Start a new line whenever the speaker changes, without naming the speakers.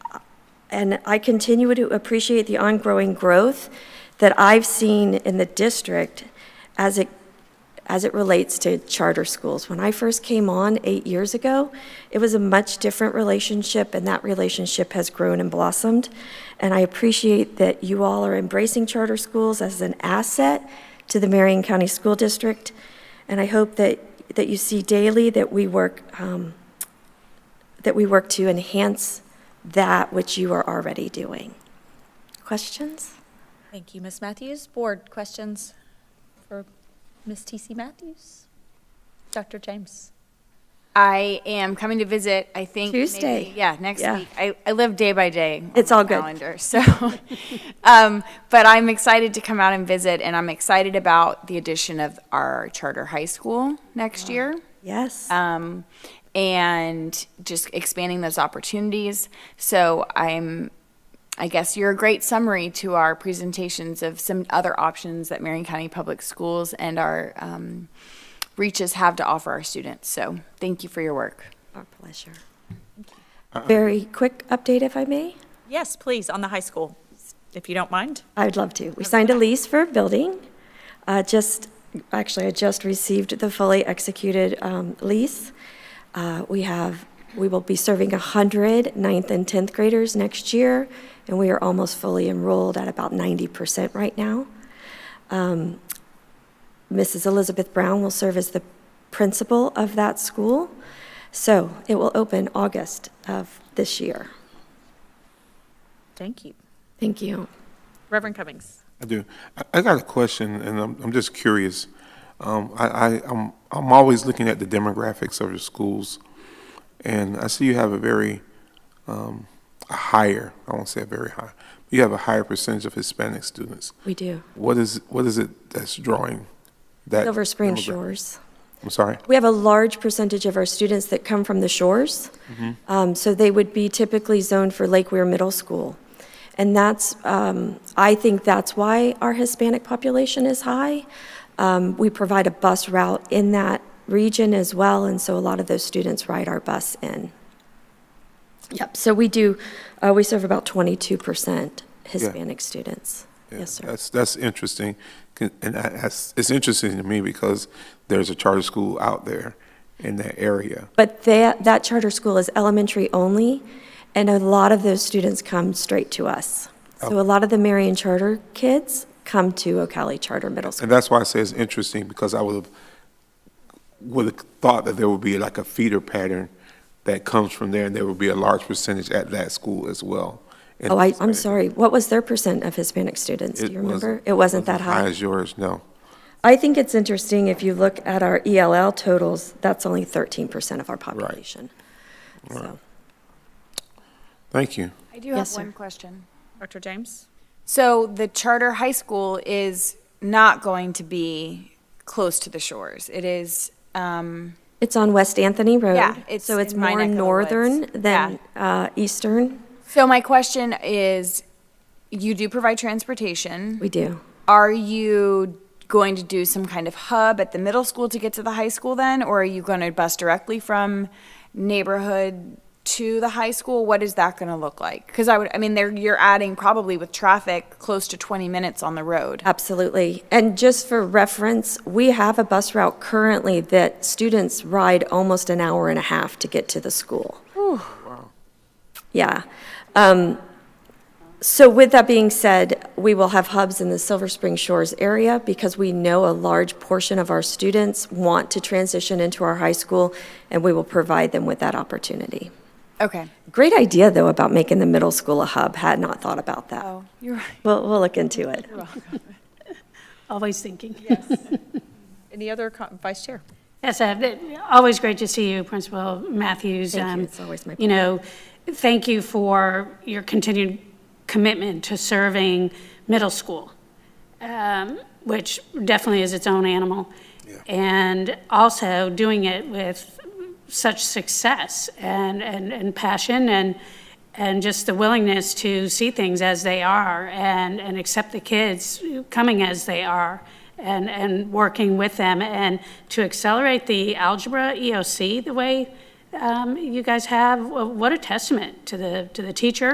and I continue to appreciate the ongoing growth that I've seen in the district as it, as it relates to charter schools. When I first came on eight years ago, it was a much different relationship, and that relationship has grown and blossomed. And I appreciate that you all are embracing charter schools as an asset to the Marion County School District. And I hope that, that you see daily that we work, um, that we work to enhance that which you are already doing. Questions?
Thank you, Ms. Matthews. Board questions for Ms. TC Matthews? Dr. James?
I am coming to visit, I think. maybe-
Tuesday.
yeah, next
Yeah.
week. I, I live day by day. on
It's
my
all good.
Calendar, so. um, But I'm excited to come out and visit, and I'm excited about the addition of our charter high school next year.
Yes.
um, and just expanding those opportunities. So I'm, I guess you're a great summary to our presentations of some other options that Marion County Public Schools and our um, reaches have to offer our students. So thank you for your work.
Our pleasure. Very quick update, if I may?
Yes, please, on the high school, if you don't mind.
I'd love to. We signed a lease for a building. Uh, Just, actually, I just received the fully executed um, lease. Uh, We have, we will be serving 100 ninth and 10th graders next year, and we are almost fully enrolled at about 90% right now. Mrs. Elizabeth Brown will serve as the principal of that school. So it will open August of this year.
Thank you.
Thank you.
Reverend Cummings.
I do. I, I got a question, and I'm, I'm just curious. Um, I, I, I'm, I'm always looking at the demographics of your schools, and I see you have a very, um, a higher, I won't say a very high, you have a higher percentage of Hispanic students.
We do.
What is, what is it that's drawing that?
Silver Spring
demogra-
Shores.
I'm sorry?
We have a large percentage of our students that come from the shores. Um, So they would be typically zoned for Lake Weir Middle School. And that's, um, I think that's why our Hispanic population is high. Um, We provide a bus route in that region as well, and so a lot of those students ride our bus in. Yep, so we do, uh, we serve about 22% Hispanic students.
Yeah,
Yes, sir.
That's, that's interesting. Can- And I- that's, it's interesting to me because there's a charter school out there in that area.
But that, that charter school is elementary only, and a lot of those students come straight to us. So a lot of the Marion Charter kids come to Ocala Charter Middle School.
And that's why I say it's interesting, because I would have, would have thought that there would be like a feeder pattern that comes from there, and there would be a large percentage at that school as well. And
Oh, I, I'm
Hispanic.
sorry, what was their percent of Hispanic students, do you
wasn't-
remember? It wasn't that
High
high.
as yours, no.
I think it's interesting, if you look at our ELL totals, that's only 13% of our population. So,
Thank you.
I do
have Yes, sir. one
question.
Dr. James?
So the charter high school is not going to be close to the shores. It is. Um,
It's on West Anthony Road.
Yeah, it's
So it's
in my
more
neck of the woods.
northern than uh, eastern.
so my question is, you do provide transportation.
We do.
Are you going to do some kind of hub at the middle school to get to the high school then? Or are you going to bus directly from neighborhood to the high school? What is that going to look like? Because I would, I mean, there, you're adding probably with traffic close to 20 minutes on the road.
Absolutely. And just for reference, we have a bus route currently that students ride almost an hour and a half to get to the school. Yeah. Um, So with that being said, we will have hubs in the Silver Spring Shores area because we know a large portion of our students want to transition into our high school, and we will provide them with that opportunity.
Okay.
Great idea, though, about making the middle school a hub. Had not thought about that.
Oh, you're right.
We'll, we'll look into it.
Always thinking.
Any other co- vice chair?
Yes, I have- always great to see you, Principal Matthews.
Thank you.
Um,
It's always my
You know, thank you for your continued commitment to serving middle school, um, which definitely is its own animal. And also doing it with such success and, and, and passion and, and just the willingness to see things as they are and, and accept the kids coming as they are and, and working with them. And to accelerate the algebra E EOC the way um, you guys have, wh- what a testament to the, to the teacher